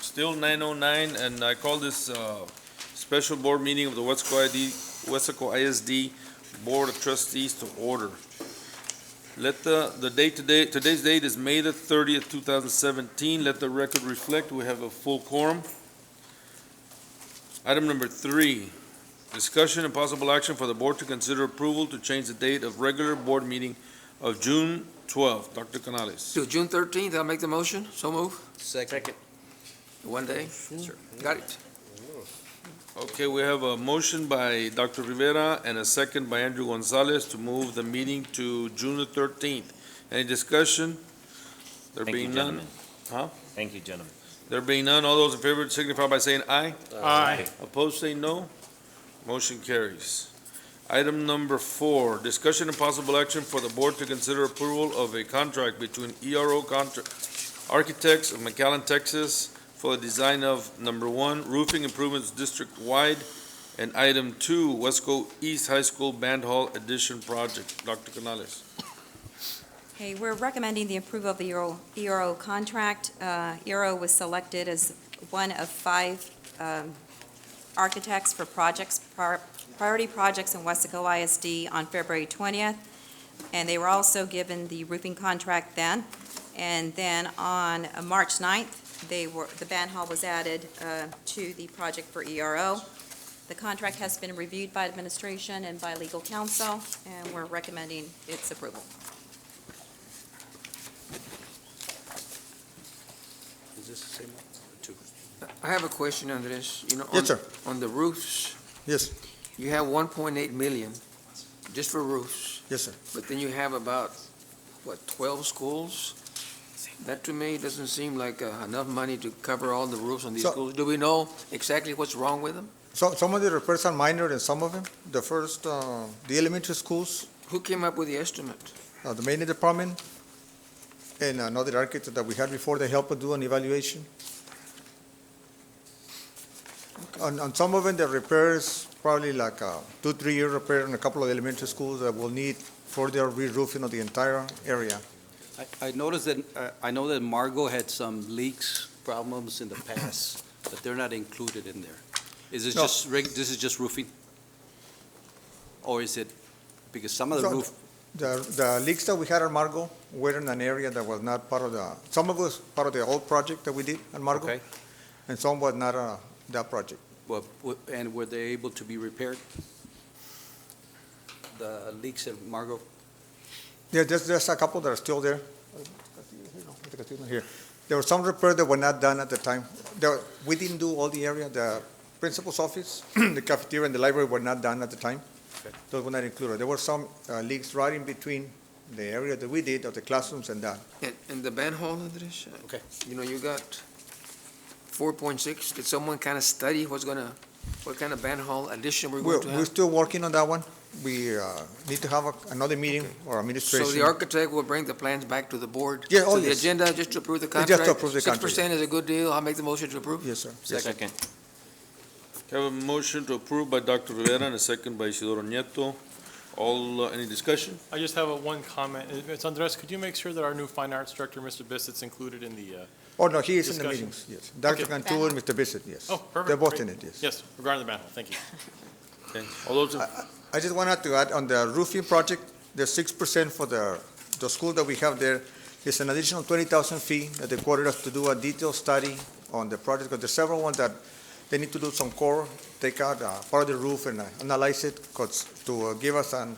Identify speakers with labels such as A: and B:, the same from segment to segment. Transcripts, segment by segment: A: still nine oh nine, and I call this, uh, special board meeting of the Wesco ID, Wesco ISD Board of Trustees to order. Let the, the date today, today's date is May the thirtieth, two thousand seventeen. Let the record reflect, we have a full quorum. Item number three, discussion and possible action for the board to consider approval to change the date of regular board meeting of June twelfth. Dr. Canales.
B: To June thirteenth, I'll make the motion, so move,
C: Second.
B: one day. Sure. Got it.
A: Okay, we have a motion by Dr. Rivera and a second by Andrew Gonzalez to move the meeting to June the thirteenth. Any discussion? There
D: Thank you,
A: being none,
D: gentlemen.
A: Huh?
D: Thank you, gentlemen.
A: there being none, all those in favor signify by saying aye.
C: Aye.
A: Opposed, say no. Motion carries. Item number four, discussion and possible action for the board to consider approval of a contract between E ERO Contract Architects of McAllen, Texas for the design of, number one, roofing improvements district-wide, and item two, Wesco East High School Band Hall Addition Project. Dr. Canales.
E: Okay, we're recommending the approval of the ERO ERO contract. Uh, ERO was selected as one of five um, architects for projects, prior- priority projects in Wesco ISD on February 20th, and they were also given the roofing contract then. And then on uh, March 9th, they were, the band hall was added uh, to the project for ERO. The contract has been reviewed by administration and by legal counsel, and we're recommending its approval.
C: Is this the same one? Two.
B: I have a question on this, you know. on-
F: Yes, sir.
B: On the roofs,
F: Yes,
B: you have one point eight million just for roofs,
F: yes, sir.
B: but then you have about, what, twelve schools? That to me doesn't seem like uh, enough money to cover all the roofs on these
F: So-
B: schools. Do we know exactly what's wrong with them?
F: So some of the repairs are minor and some of them, the first, uh, the elementary schools,
B: Who came up with the estimate?
F: uh, the main department, and another architect that we had before, they helped us do an evaluation. On, on some of them, the repairs, probably like a two, three-year repair in a couple of elementary schools that will need further re-roofing of the entire area.
C: I, I noticed that, uh, I know that Margot had some leaks, problems in the past, but they're not included in there. Is this
F: No.
C: just, reg- this is just roofing? Or is it, because some of the
F: So-
C: roof,
F: The, the leaks that we had on Margot were in an area that was not part of the, some of it was part of the old project that we did on Margot,
C: okay,
F: and some was not, uh, that project.
C: well, w- and were they able to be repaired? The leaks at Margot?
F: Yeah, there's, there's a couple that are still there. Here. There were some repairs that were not done at the time. There, were- we didn't do all the area, the principal's office, the cafeteria and the library were not done at the time. Those were not included. There were some uh, leaks right in between the area that we did of the classrooms and that.
B: And, and the band hall, Andres? Uh,
C: Okay.
B: You know, you got four point six. Did someone kind of study what's gonna, what kind of band hall addition we're
F: We're,
B: going to
F: we're
B: have?
F: still working on that one. We uh, need to have a- another meeting or administration.
B: So the architect will bring the plans back to the board?
F: Yeah, oh,
B: So the
F: yes.
B: agenda, just to approve the
F: Just
B: contract?
F: to approve the contract,
B: Six percent is a good deal. I'll make the motion to approve.
F: Yes, sir.
D: Second.
A: Have a motion to approve by Dr. Rivera and a second by Isidoro Nieto. All, uh, any discussion?
G: I just have a one comment. Uh, Ms. Andres, could you make sure that our new fine arts director, Mr. Bissett's included in the, uh,
F: Oh, no, he is in the
G: Discussion.
F: meetings, yes. Dr.
G: Okay.
F: Cantu and Mr. Bissett, yes.
G: oh, perfect.
F: They're both
G: great.
F: in it, yes.
G: Yes, regarding the band hall, thank you.
A: Okay, all those in
F: I just wanted to add, on the roofing project, the six percent for the, the school that we have there is an additional twenty thousand fee that they quoted us to do a detailed study on the project, because there's several ones that they need to do some core, take out, uh, part of the roof and uh, analyze it, 'cause to uh, give us an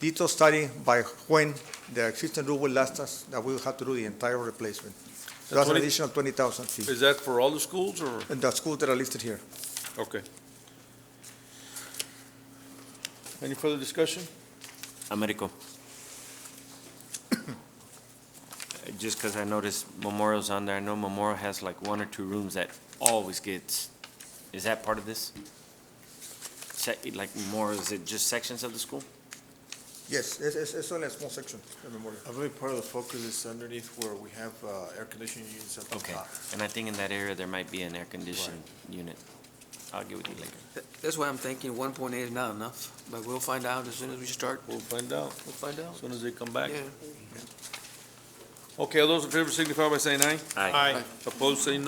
F: detailed study by when the existing roof will last us, that we will have to do the entire replacement. So that's an
A: 20
F: additional twenty thousand fee,
A: Is that for all the schools or?
F: and the schools that are listed here.
A: Okay. Any further discussion?
D: Americo. Just because I noticed Memorial's on there, I know Memorial has like one or two rooms that always gets, is that part of this? Se- Like Memorial, is it just sections of the school?
F: Yes, it's, it's, it's only a small section, the memorial.
H: I believe part of the focus is underneath where we have uh, air conditioning units at the
D: Okay,
H: top.
D: and I think in that area there might be an air-conditioned unit. I'll get with you later.
B: Th- That's why I'm thinking one point eight is not enough, but we'll find out as soon as we start.
A: We'll find out
B: We'll find out.
A: as soon as they come back.
B: Yeah.
A: Okay, all those in favor signify by saying aye.
D: Aye.
G: Aye.
A: Opposed, say no.